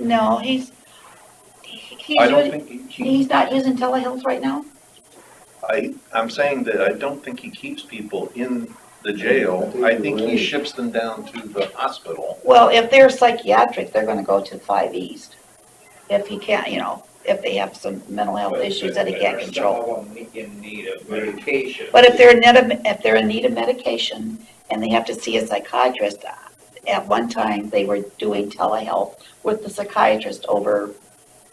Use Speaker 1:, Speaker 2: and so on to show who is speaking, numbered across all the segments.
Speaker 1: No, he's, he- he's,
Speaker 2: I
Speaker 1: really-
Speaker 2: don't think he,
Speaker 1: he's not using telehealth right now?
Speaker 2: I, I'm saying that I don't think he keeps people in the jail. I think he ships them down to the hospital.
Speaker 1: Well, if they're psychiatric, they're gonna go to five east. If he can't, you know, if they have some mental health issues that he can't control.
Speaker 3: In need of medication.
Speaker 1: But if they're in need of, if they're in need of medication and they have to see a psychiatrist, at one time, they were doing telehealth with the psychiatrist over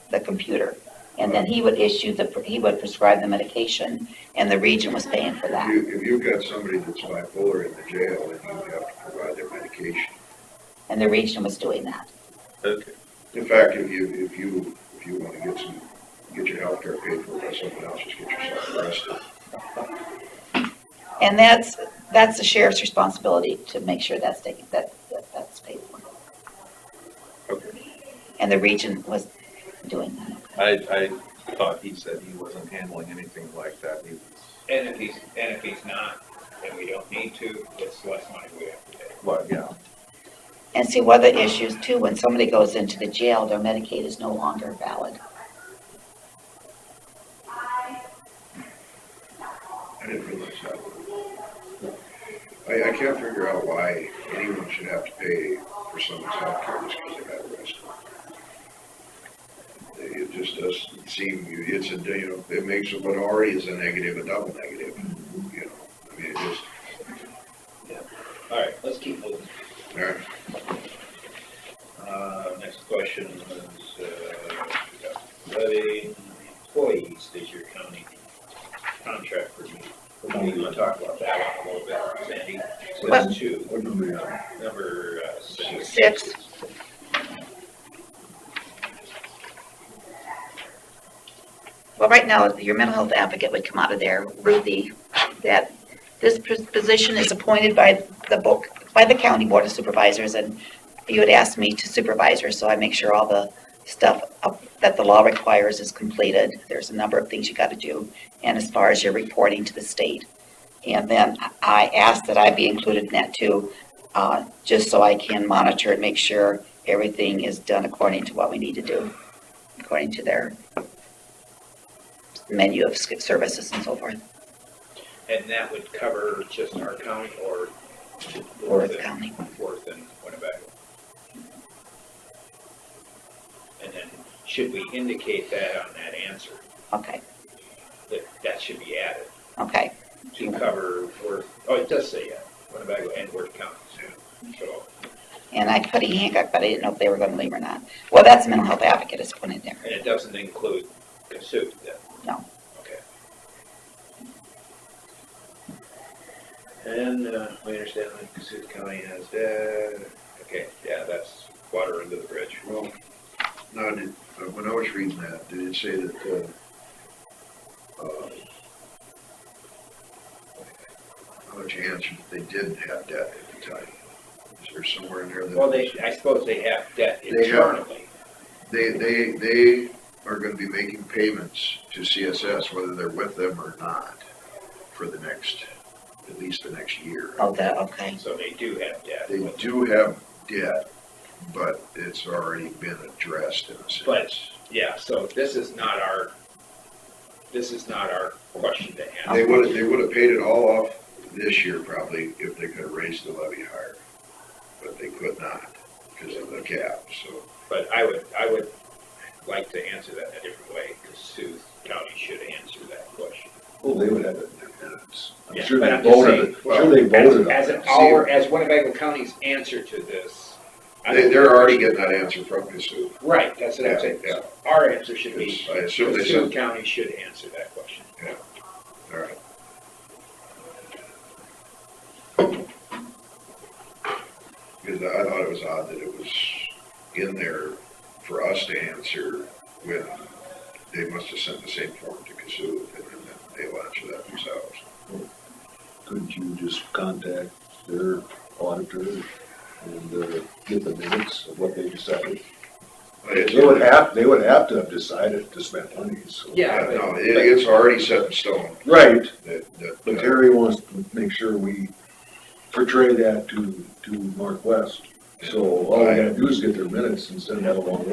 Speaker 1: the computer. And then he would issue the, he would prescribe the medication and the region was paying for
Speaker 4: If
Speaker 1: that.
Speaker 4: you, if you've got somebody that's bipolar in the jail, then you have to provide their medication.
Speaker 1: And the region was doing that.
Speaker 2: Okay.
Speaker 4: In fact, if you, if you, if you wanna get some, get your healthcare paid for by someone else, just get yourself arrested.
Speaker 1: And that's, that's the sheriff's responsibility to make sure that's taken, that, that- that's paid for.
Speaker 2: Okay.
Speaker 1: And the region was doing that.
Speaker 2: I, I thought he said he wasn't handling anything like that. He was,
Speaker 3: And if he's, and if he's not, then we don't need to, it's less money we have to pay.
Speaker 2: well, yeah,
Speaker 1: And see, one of the issues too, when somebody goes into the jail, their Medicaid is no longer valid.
Speaker 4: I didn't realize that. I, I can't figure out why anyone should have to pay for someone's healthcare just because they got arrested. It just doesn't seem, it's a, you know, it makes what already is a negative a double negative, you know? I mean, it just,
Speaker 3: All right, let's keep moving.
Speaker 4: all right.
Speaker 3: Uh, next question is, uh, letting employees is your county contract review. We're gonna talk about that one a little bit, Sandy. So
Speaker 1: Well-
Speaker 3: that's two,
Speaker 4: What do we have?
Speaker 3: number uh, six.
Speaker 1: Six. Well, right now, your mental health advocate would come out of there, Ruthie, that this pos- position is appointed by the book, by the county board of supervisors, and you had asked me to supervisor, so I make sure all the stuff up- that the law requires is completed. There's a number of things you gotta do, and as far as your reporting to the state. And then I asked that I be included in that too, uh, just so I can monitor and make sure everything is done according to what we need to do, according to their menu of sk- services and so forth,
Speaker 3: And that would cover just our county or?
Speaker 1: or the county.
Speaker 3: Worth and Winnebago. And then should we indicate that on that answer,
Speaker 1: Okay,
Speaker 3: that that should be added
Speaker 1: okay,
Speaker 3: to cover Worth, oh, it does say, yeah, Winnebago and Worth counties, so,
Speaker 1: and I put E. Hancock, but I didn't know if they were gonna leave or not. Well, that's mental health advocate is put in there.
Speaker 3: and it doesn't include Cassup then?
Speaker 1: No.
Speaker 3: Okay. And, uh, we understand that Cassup County has, uh, okay, yeah, that's water under the bridge.
Speaker 4: Well, no, did, uh, when I was reading that, did it say that, uh, uh, how much answer that they didn't have debt at the time? Is there somewhere in there that?
Speaker 3: Well, they, I suppose they have debt
Speaker 4: They have.
Speaker 3: internally.
Speaker 4: They, they, they are gonna be making payments to CSS, whether they're with them or not, for the next, at least the next year.
Speaker 1: Oh, the, okay,
Speaker 3: So they do have debt.
Speaker 4: They do have debt, but it's already been addressed in a sense.
Speaker 3: But, yeah, so this is not our, this is not our question to
Speaker 4: They
Speaker 3: answer.
Speaker 4: would have, they would have paid it all off this year probably if they could have raised the levy higher, but they could not because of the cap, so.
Speaker 3: But I would, I would like to answer that in a different way, because Sioux County should answer that question.
Speaker 5: Well, they would have it in their minutes. I'm
Speaker 3: Yeah,
Speaker 5: sure
Speaker 3: but
Speaker 5: they
Speaker 3: I'm just
Speaker 5: voted,
Speaker 3: saying,
Speaker 5: sure they
Speaker 3: As,
Speaker 5: voted on
Speaker 3: as
Speaker 5: it.
Speaker 3: our, as Winnebago County's answer to this. I
Speaker 4: They,
Speaker 3: don't-
Speaker 4: they're already getting that answer from Kasuth.
Speaker 3: Right, that's what I'm
Speaker 4: Yeah,
Speaker 3: saying.
Speaker 4: yeah.
Speaker 3: Our answer should be,
Speaker 4: I assume they
Speaker 3: Sioux
Speaker 4: said,
Speaker 3: County should answer that question.
Speaker 4: all right. Because I thought it was odd that it was in there for us to answer when they must have sent the same form to Kasuth and then they'll answer that themselves.
Speaker 5: Couldn't you just contact their auditor and uh, get the minutes of what they decided?
Speaker 4: But it's-
Speaker 5: They would have, they would have to have decided to spend money, so.
Speaker 3: Yeah,
Speaker 4: Yeah, no,
Speaker 3: but-
Speaker 4: it, it's already set in stone
Speaker 5: Right,
Speaker 4: that, that. uh,
Speaker 5: but Terry wants to make sure we portray that to, to Northwest. So all we gotta do is get their minutes and send that along